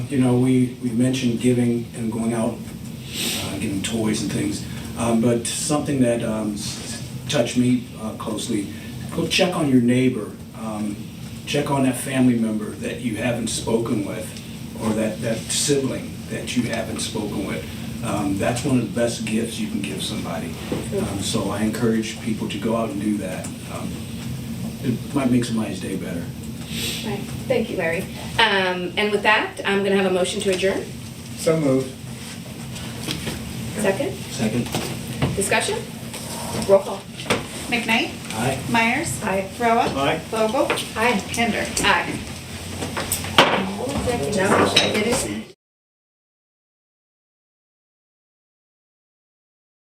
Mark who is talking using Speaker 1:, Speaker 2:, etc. Speaker 1: You know, we, we mentioned giving and going out, uh, giving toys and things, um, but something that um, s- touched me uh, closely, go check on your neighbor, um, check on that family member that you haven't spoken with, or that, that sibling that you haven't spoken with. Um, That's one of the best gifts you can give somebody. Um, So I encourage people to go out and do that. Um, It might make somebody's day better.
Speaker 2: Right. Thank you, Larry. Um, And with that, I'm going to have a motion to adjourn.
Speaker 3: So moved.
Speaker 2: Second,
Speaker 1: Second?
Speaker 2: discussion? Roll call.
Speaker 4: McKnight,
Speaker 1: Aye.
Speaker 4: Myers,
Speaker 2: Aye.
Speaker 4: Roa,
Speaker 3: Aye.
Speaker 4: Vogel,
Speaker 2: Aye.
Speaker 4: Kinder.
Speaker 2: Aye. Now, it is.